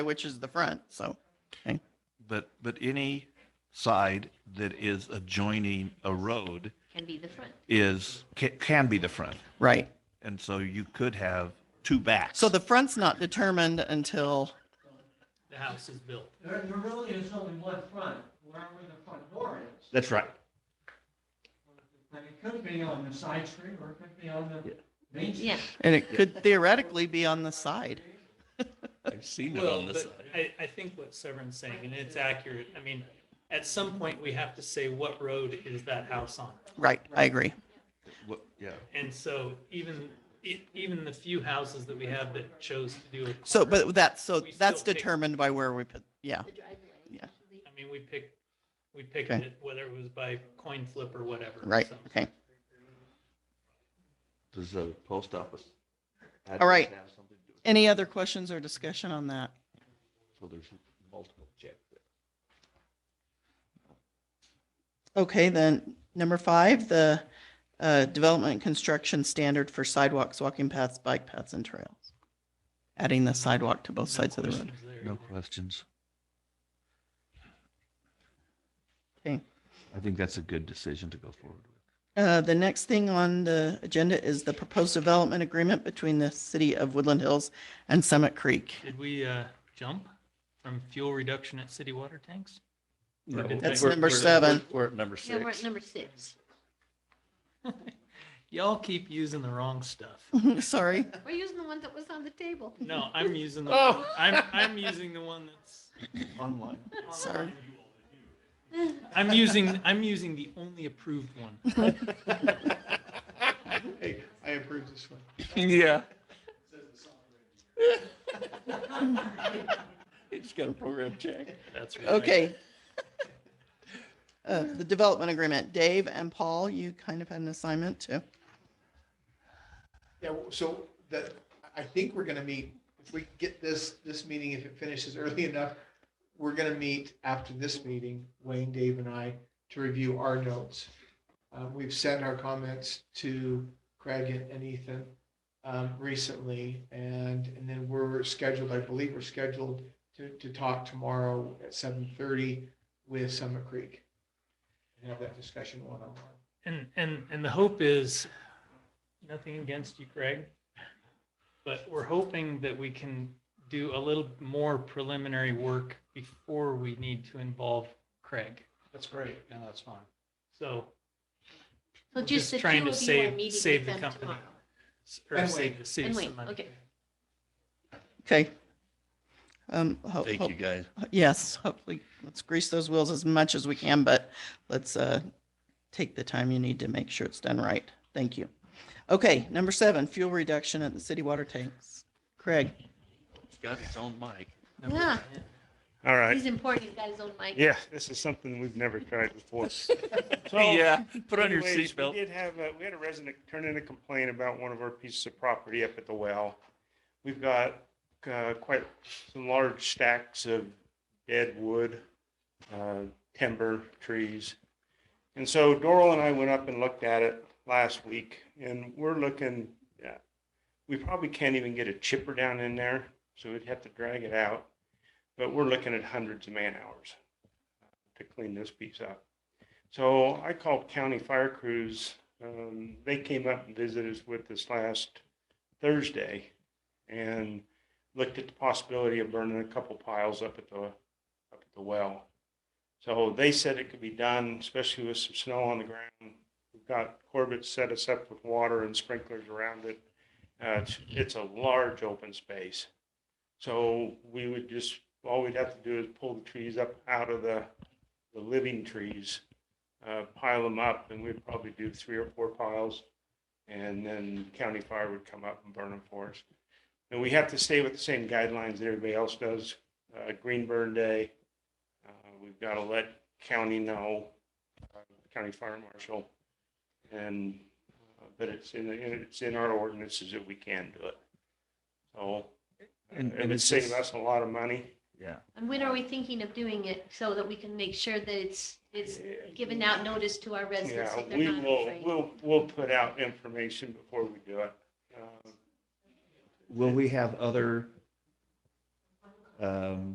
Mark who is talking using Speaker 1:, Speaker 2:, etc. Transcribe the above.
Speaker 1: which is the front, so.
Speaker 2: But, but any side that is adjoining a road
Speaker 3: Can be the front.
Speaker 2: is, ca- can be the front.
Speaker 1: Right.
Speaker 2: And so you could have two backs.
Speaker 1: So the front's not determined until,
Speaker 4: the house is built.
Speaker 5: There, there really is only one front, wherever the front door is.
Speaker 2: That's right.
Speaker 5: And it could be on the side street or it could be on the main street.
Speaker 3: Yeah,
Speaker 1: and it could theoretically be on the side.
Speaker 6: I've seen it
Speaker 4: Well,
Speaker 6: on this
Speaker 4: but
Speaker 6: side.
Speaker 4: I, I think what Severin's saying, and it's accurate, I mean, at some point, we have to say what road is that house on?
Speaker 1: Right, I agree.
Speaker 2: What- Yeah.
Speaker 4: And so even, e- even the few houses that we have that chose to do it.
Speaker 1: So, but that's, so
Speaker 4: We still
Speaker 1: that's
Speaker 4: pick-
Speaker 1: determined by where we put, yeah,
Speaker 3: the driveway.
Speaker 1: Yeah.
Speaker 4: I mean, we picked, we picked
Speaker 1: Okay.
Speaker 4: it, whether it was by coin flip or whatever.
Speaker 1: right,
Speaker 4: so.
Speaker 1: okay.
Speaker 2: Does the post office?
Speaker 1: All right.
Speaker 2: have something to do with it?
Speaker 1: Any other questions or discussion on that?
Speaker 2: So there's multiple check.
Speaker 1: Okay, then, number five, the uh, development and construction standard for sidewalks, walking paths, bike paths, and trails. Adding the sidewalk to both
Speaker 4: No
Speaker 1: sides of the road.
Speaker 4: questions there
Speaker 2: No
Speaker 4: either.
Speaker 2: questions.
Speaker 1: Okay.
Speaker 2: I think that's a good decision to go forward with.
Speaker 1: Uh, The next thing on the agenda is the proposed development agreement between the city of Woodland Hills and Summit Creek.
Speaker 4: Did we, uh, jump from fuel reduction at city water tanks?
Speaker 6: No,
Speaker 4: That's
Speaker 6: we're-
Speaker 1: number
Speaker 6: we're-
Speaker 1: seven.
Speaker 6: We're at number
Speaker 3: Yeah, we're at
Speaker 6: six.
Speaker 3: number six.
Speaker 4: Y'all keep using the wrong stuff.
Speaker 1: Sorry.
Speaker 3: We're using the one that was on the table.
Speaker 4: No, I'm using the,
Speaker 6: Oh.
Speaker 4: I'm, I'm using the one that's.
Speaker 2: Online.
Speaker 1: Sorry.
Speaker 4: I'm using, I'm using the only approved one.
Speaker 5: Hey, I approve this one.
Speaker 6: Yeah. It's got a program check.
Speaker 4: That's right.
Speaker 1: Okay. Uh, The development agreement, Dave and Paul, you kind of had an assignment to,
Speaker 7: Yeah, well, so that, I think we're gonna meet, if we get this, this meeting, if it finishes early enough, we're gonna meet after this meeting, Wayne, Dave and I, to review our notes. Uh, we've sent our comments to Craig and- and Ethan, um, recently, and, and then we're scheduled, I believe we're scheduled to, to talk tomorrow at seven thirty with Summit Creek. And have that discussion one on one.
Speaker 4: And, and, and the hope is, nothing against you, Craig, but we're hoping that we can do a little more preliminary work before we need to involve Craig.
Speaker 7: That's great, yeah, that's fine.
Speaker 4: So,
Speaker 3: So
Speaker 4: We're
Speaker 3: just
Speaker 4: just
Speaker 3: the two
Speaker 4: trying to
Speaker 3: of you are
Speaker 4: save-
Speaker 3: meeting
Speaker 4: save
Speaker 3: with
Speaker 4: the
Speaker 3: them
Speaker 4: company.
Speaker 3: tomorrow.
Speaker 4: or
Speaker 7: And
Speaker 4: save
Speaker 7: wait.
Speaker 4: the city
Speaker 3: And
Speaker 4: some
Speaker 3: wait,
Speaker 4: money.
Speaker 3: okay.
Speaker 1: okay? Um, ho-
Speaker 6: Thank
Speaker 1: ho-
Speaker 6: you, guys.
Speaker 1: Yes, hopefully, let's grease those wheels as much as we can, but let's uh, take the time you need to make sure it's done right. Thank you. Okay, number seven, fuel reduction at the city water tanks. Craig?
Speaker 6: It's got its own mic.
Speaker 4: Number
Speaker 3: Yeah.
Speaker 4: ten.
Speaker 8: All right.
Speaker 3: He's important, he's got his own mic.
Speaker 8: Yeah, uh, this is something we've never tried before. So
Speaker 6: Yeah, put on your
Speaker 8: anyways,
Speaker 6: seatbelt.
Speaker 8: We did have, a- we had a resident turn in a complaint about one of our pieces of property up at the well. We've got uh, quite some large stacks of dead wood, uh, timber, trees. And so Doral and I went up and looked at it last week and we're looking, yeah, we probably can't even get a chipper down in there, so we'd have to drag it out. But we're looking at hundreds of man hours to clean this piece up. So I called county fire crews. Um, they came up and visited us with us last Thursday and looked at the possibility of burning a couple piles up at the, up at the well. So they said it could be done, especially with some snow on the ground. We've got Corbett set us up with water and sprinklers around it. Uh, it's, it's a large open space. So we would just, all we'd have to do is pull the trees up out of the, the living trees uh, pile them up, and we'd probably do three or four piles. And then county fire would come up and burn them for us. And we have to stay with the same guidelines that everybody else does. Uh, Green Burn Day, uh, we've got to let county know, uh, county fire marshal. And, uh, but it's in, the it's in our ordinances that we can do it. So,
Speaker 2: And-
Speaker 8: and
Speaker 2: and
Speaker 8: it
Speaker 2: it's
Speaker 8: saves
Speaker 2: just-
Speaker 8: us a lot of money.
Speaker 2: Yeah.
Speaker 3: And when are we thinking of doing it so that we can make sure that it's, it's given out notice to our residents
Speaker 8: Yeah,
Speaker 3: that
Speaker 8: we
Speaker 3: they're not
Speaker 8: will,
Speaker 3: afraid?
Speaker 8: we'll, we'll put out information before we do it. Uh,
Speaker 2: Will we have other Um,